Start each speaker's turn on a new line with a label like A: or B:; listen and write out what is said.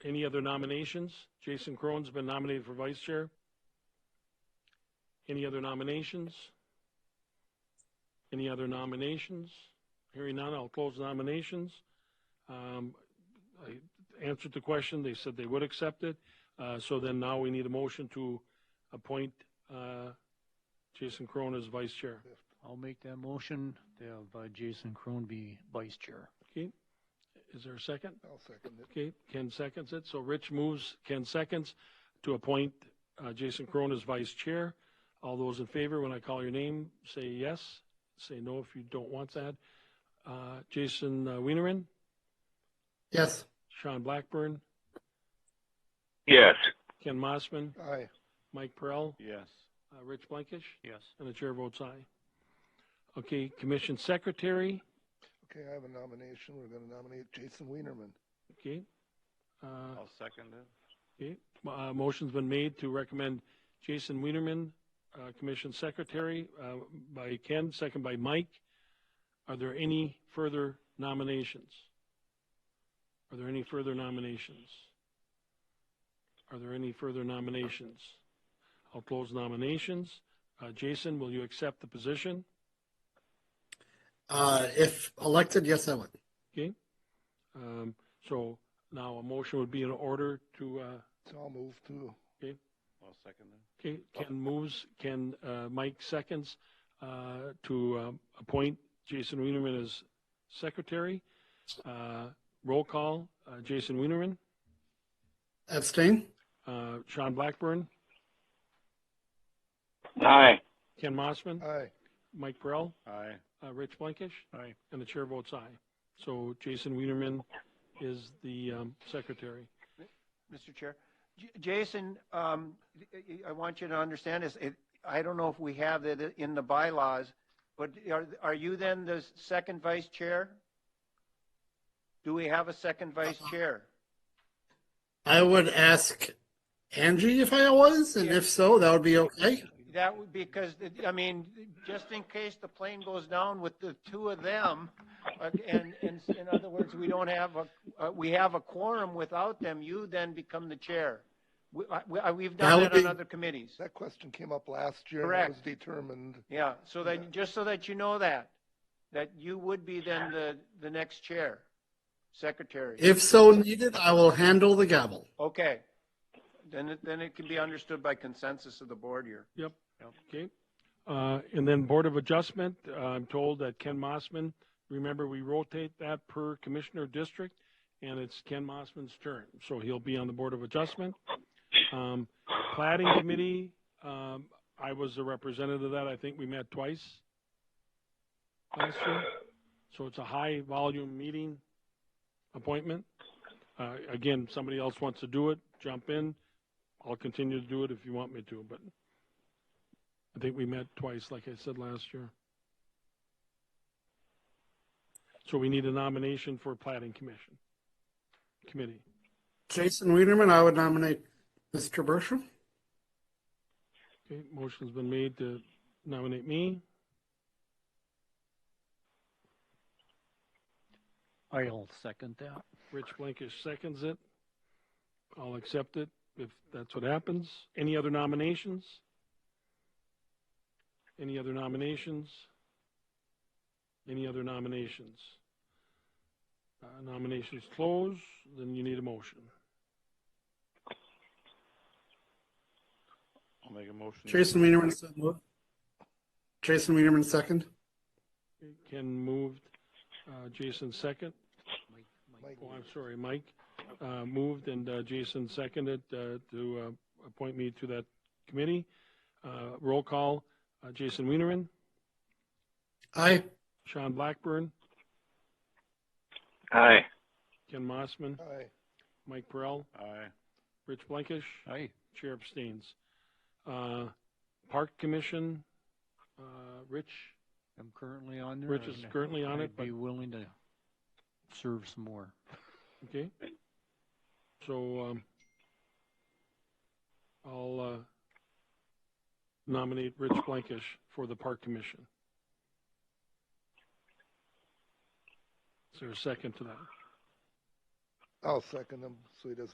A: Any other nominations? Jason Cronin's been nominated for vice chair. Any other nominations? Any other nominations? Hearing none, I'll close the nominations. Um, I answered the question. They said they would accept it. Uh, so then now we need a motion to appoint, uh, Jason Cronin as vice chair.
B: I'll make that motion to have uh, Jason Crone be vice chair.
A: Okay. Is there a second?
C: I'll second it.
A: Okay, Ken seconds it. So Rich moves, Ken seconds to appoint uh, Jason Crone as vice chair. All those in favor, when I call your name, say yes. Say no if you don't want that. Uh, Jason uh, Wienerin,
D: yes,
A: Sean Blackburn,
E: yes,
A: Ken Mossman,
C: Aye.
A: Mike Perrell,
F: Yes.
A: uh, Rich Blankish,
B: Yes.
A: and the chair votes aye. Okay, commission secretary.
C: Okay, I have a nomination. We're gonna nominate Jason Wienerman.
A: Okay. Uh,
F: I'll second it.
A: Okay, uh, motion's been made to recommend Jason Wienerman, uh, Commission Secretary, uh, by Ken, second by Mike. Are there any further nominations? Are there any further nominations? Are there any further nominations? I'll close nominations. Uh, Jason, will you accept the position?
D: uh, if elected, yes, I would.
A: Okay. Um, so now a motion would be in order to, uh,
C: So I'll move to,
F: I'll second it.
A: Okay, Ken moves, Ken, uh, Mike seconds, uh, to, um, appoint Jason Wienerman as secretary. Uh, roll call, uh, Jason Wienerman,
D: Abstain?
A: uh, Sean Blackburn,
E: aye,
A: Ken Mossman,
C: aye.
A: Mike Burrell,
F: Aye.
A: uh, Rich Blankish,
B: Aye.
A: and the chair votes aye. So Jason Wienerman is the, um, secretary.
G: Mr. Chair. J- Jason, um, I- I want you to understand this. It- I don't know if we have that in the bylaws, but are, are you then the second vice chair? Do we have a second vice chair?
D: I would ask Angie if I was, and if so, that would be okay.
G: That would, because, it- I mean, just in case the plane goes down with the two of them, uh, and, and in other words, we don't have a, uh, we have a quorum without them, you then become the chair. We, I- we, I- we've
D: That
G: done
D: would
G: it on
D: be-
G: other committees.
C: That question came up last year and it was
G: Correct.
C: determined.
G: Yeah, so
C: Yeah.
G: that, just so that you know that, that you would be then the, the next chair, secretary.
D: If so needed, I will handle the gavel.
G: Okay. Then it, then it can be understood by consensus of the board here.
A: Okay. Uh, and then Board of Adjustment, uh, I'm told that Ken Mossman, remember, we rotate that per commissioner district, and it's Ken Mossman's turn, so he'll be on the Board of Adjustment. Um, Plating Committee, um, I was a representative of that, I think we met twice last year, so it's a high-volume meeting appointment. Uh, again, somebody else wants to do it, jump in, I'll continue to do it if you want me to, but I think we met twice, like I said last year. So we need a nomination for plating commission, committee.
D: Jason Wienerman, I would nominate Mr. Bersham.
A: Okay, motion's been made to nominate me.
B: I'll second that.
A: Rich Blankish seconds it. I'll accept it if that's what happens. Any other nominations? Any other nominations? Any other nominations? Uh, Nominations close, then you need a motion.
F: I'll make a motion.
D: Jason Wienerman, so moved. Jason Wienerman, second.
A: Ken moved, uh, Jason second.
C: Mike,
A: Oh, I'm sorry, Mike uh, moved and uh, Jason seconded uh, to uh, appoint me to that committee. Uh, Roll call, uh, Jason Wienerman,
D: Aye.
A: Sean Blackburn,
E: aye,
A: Ken Mossman,
C: aye.
A: Mike Perrell,
F: Aye.
A: Rich Blankish,
B: Aye.
A: Chair abstains. Uh, Park Commission, uh, Rich,
B: I'm currently on there.
A: Rich is
B: and
A: currently on it,
B: I'd
A: but,
B: Be willing to serve some more.
A: okay. So um, I'll uh, nominate Rich Blankish for the Park Commission. Is there a second to that?
C: I'll second him so he doesn't